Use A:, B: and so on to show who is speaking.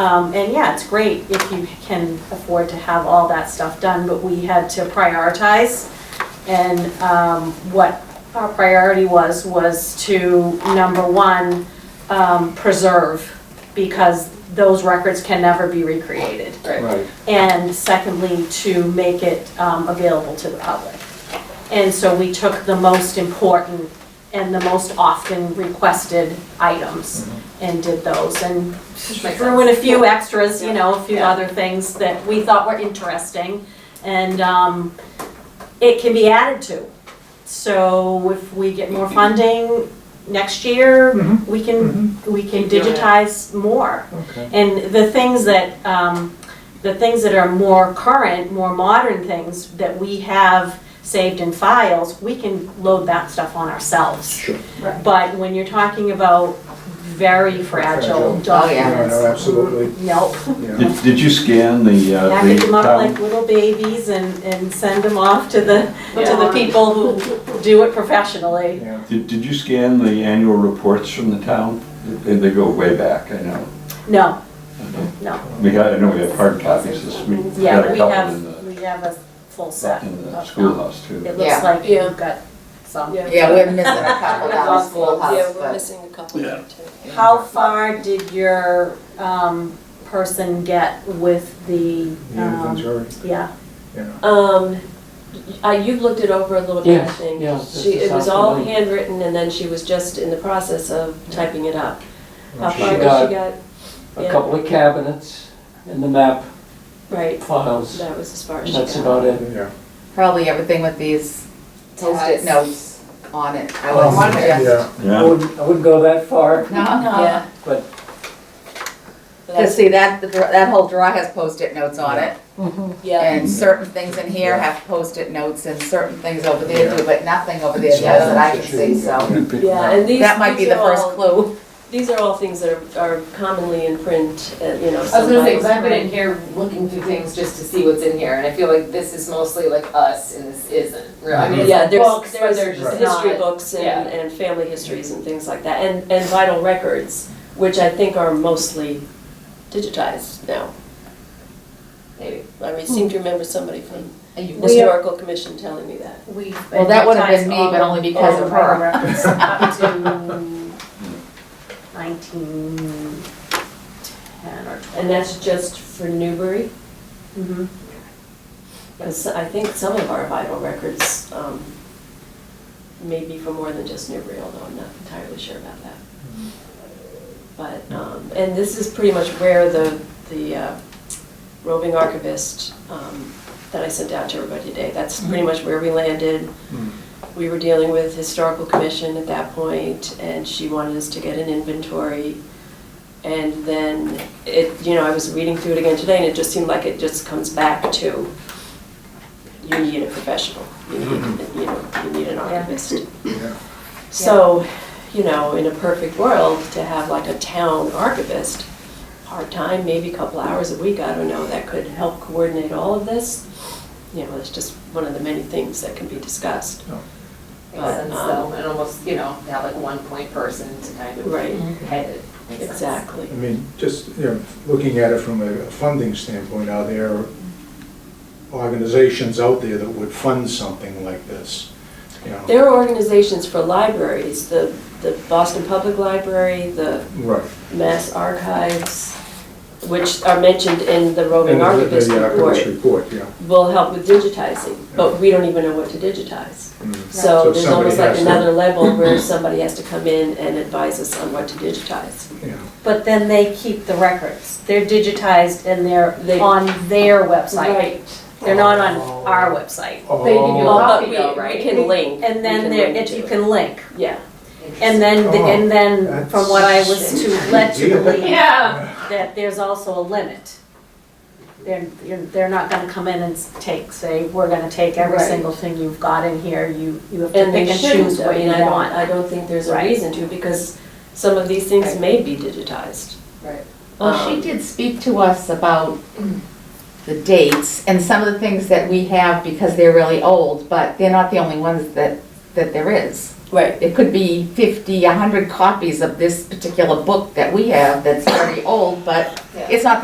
A: Um, and yeah, it's great if you can afford to have all that stuff done, but we had to prioritize. And, um, what our priority was, was to, number one, um, preserve, because those records can never be recreated.
B: Right.
A: And secondly, to make it um, available to the public. And so we took the most important and the most often requested items and did those and
C: Makes
A: threw in a few extras, you know, a few
C: Yeah.
A: other things that we thought were interesting. And um, it can be added to. So if we get more funding next year,
B: Mhm.
A: we can, we can digitize more.
B: Okay.
A: And the things that, um, the things that are more current, more modern things that we have saved in files, we can load that stuff on ourselves.
B: Sure.
A: But when you're talking about very fragile
B: Fragile.
C: Oh, yeah.
B: No,
A: documents.
B: no, absolutely,
A: Nope.
B: yeah.
D: Did, did you scan the, uh, the
A: Package them up like
D: town?
A: little babies and, and send them off to the, to the
C: Yeah.
A: people who do it professionally.
B: Yeah.
D: Did, did you scan the annual reports from the town? They, they go way back, I know.
A: No, no.
D: We had, I know we had hard copies this week. Had
A: Yeah,
D: a
A: we
D: couple in
A: have,
D: the-
A: we have a full set.
D: In the
A: of-
D: schoolhouse too.
A: It looks
C: Yeah.
A: like you've got some.
C: Yeah, we're missing a couple down the
E: Yeah,
C: schoolhouse,
E: we're
C: but.
E: missing a couple
D: Yeah.
E: too.
A: How far did your um, person get with the,
B: Yeah, that's
A: um,
B: right,
A: yeah,
B: yeah.
E: Um, uh, you've looked it over a little bit, I
F: Yes,
E: think.
F: yes, this
E: She,
F: is
E: it was
F: how
E: all
F: I-
E: handwritten and then she was just in the process of typing it up. How
B: Well,
E: far
F: she
B: she's-
E: did
F: got-
E: she got?
F: a
E: Yeah.
F: couple of cabinets and the map
E: Right,
F: files.
E: that was as far as she got.
F: That's about it.
B: Yeah.
C: Probably everything with these post-it
G: Tags.
C: notes on it, I
F: Oh,
C: would
B: Yeah,
C: suggest.
F: I
D: Yeah,
F: wouldn't, I wouldn't go that far.
C: No, no.
E: Yeah.
F: But-
C: Cause see, that, the dra- that whole drawer has post-it notes on it,
E: Yeah,
C: and certain things in here
B: Yeah.
C: have post-it notes, and certain things over there
B: Yeah.
C: do, but nothing over there does that I can see, so.
E: yeah, and these,
C: That might be
E: these
C: the
E: are
C: first
E: all,
C: clue.
E: these are all things that are, are commonly in print, uh, you know,
G: I was gonna say,
E: somebody's.
G: because I've been in here looking through things just to see what's in here, and I feel like this is mostly like us and this isn't, really. I mean,
E: Yeah,
G: it's
E: there's,
G: books, but
E: there's
G: they're just
E: history
G: not.
E: books and,
G: yeah.
E: and family histories and things like that, and, and vital records, which I think are mostly digitized now. Maybe, I mean, seem to remember somebody from the historical commission telling me that.
A: we.
C: Well, that would've been me, but only because of her.
A: Up to nineteen ten or
E: And that's just for Newbury,
A: Mhm.
E: because I think some of our vital records, um, may be for more than just Newbury, although I'm not entirely sure about that. But, um, and this is pretty much where the, the uh, roving archivist, um, that I sent out to everybody today, that's pretty much where we landed. We were dealing with historical commission at that point, and she wanted us to get an inventory. And then it, you know, I was reading through it again today, and it just seemed like it just comes back to, you need a professional, you need, you know, you need an archivist.
B: Yeah.
E: So, you know, in a perfect world, to have like a town archivist, part-time, maybe a couple hours a week, I don't know, that could help coordinate all of this. You know, it's just one of the many things that can be discussed.
G: Makes sense, though, and almost, you know, have like one point person to kind of
E: Right,
G: head it. Makes sense.
E: exactly.
B: I mean, just, you know, looking at it from a funding standpoint, are there organizations out there that would fund something like this? You know,
E: There are organizations for libraries, the, the Boston Public Library, the
B: Right.
E: Mass Archives, which are mentioned in the roving
B: And the-
E: archivist
B: the uh, archivist
E: report,
B: report, yeah.
E: will help with digitizing, but we don't even know what to digitize.
B: Mm. So
E: So there's
B: somebody
E: almost like
B: has to-
E: another level where somebody has to come in and advise us on what to digitize.
B: Yeah.
A: But then they keep the records. They're digitized and they're
E: They-
A: on their website. They're not on our website.
G: They give you a
B: Oh.
G: lot.
E: But
G: Copy
E: we,
G: though,
E: we
G: right?
E: can link.
A: And
E: we
A: then
E: can
A: there,
E: link
A: if
E: to
A: you
E: it.
A: can link.
E: Yeah,
A: And then, the-
B: Oh,
A: and then from what I was
B: that's-
A: to led to believe,
G: Yeah.
A: that there's also a limit. They're, you're- they're not gonna come in and s- take, say, we're gonna take every
E: Right.
A: single thing you've got in here, you, you have to
E: and
A: pick
E: they
A: and choose
E: shouldn't, I
A: what
E: mean,
A: you
E: I don't,
A: want.
E: I don't think there's a
A: Right.
E: reason to, because some of these things
G: Right.
E: may be digitized.
G: Right.
C: Well, she did speak to us about the dates and some of the things that we have because they're really old, but they're not the only ones that, that there is.
E: Right,
C: It could be 50, 100 copies of this particular book that we have that's very old, but
G: Yeah.
C: it's not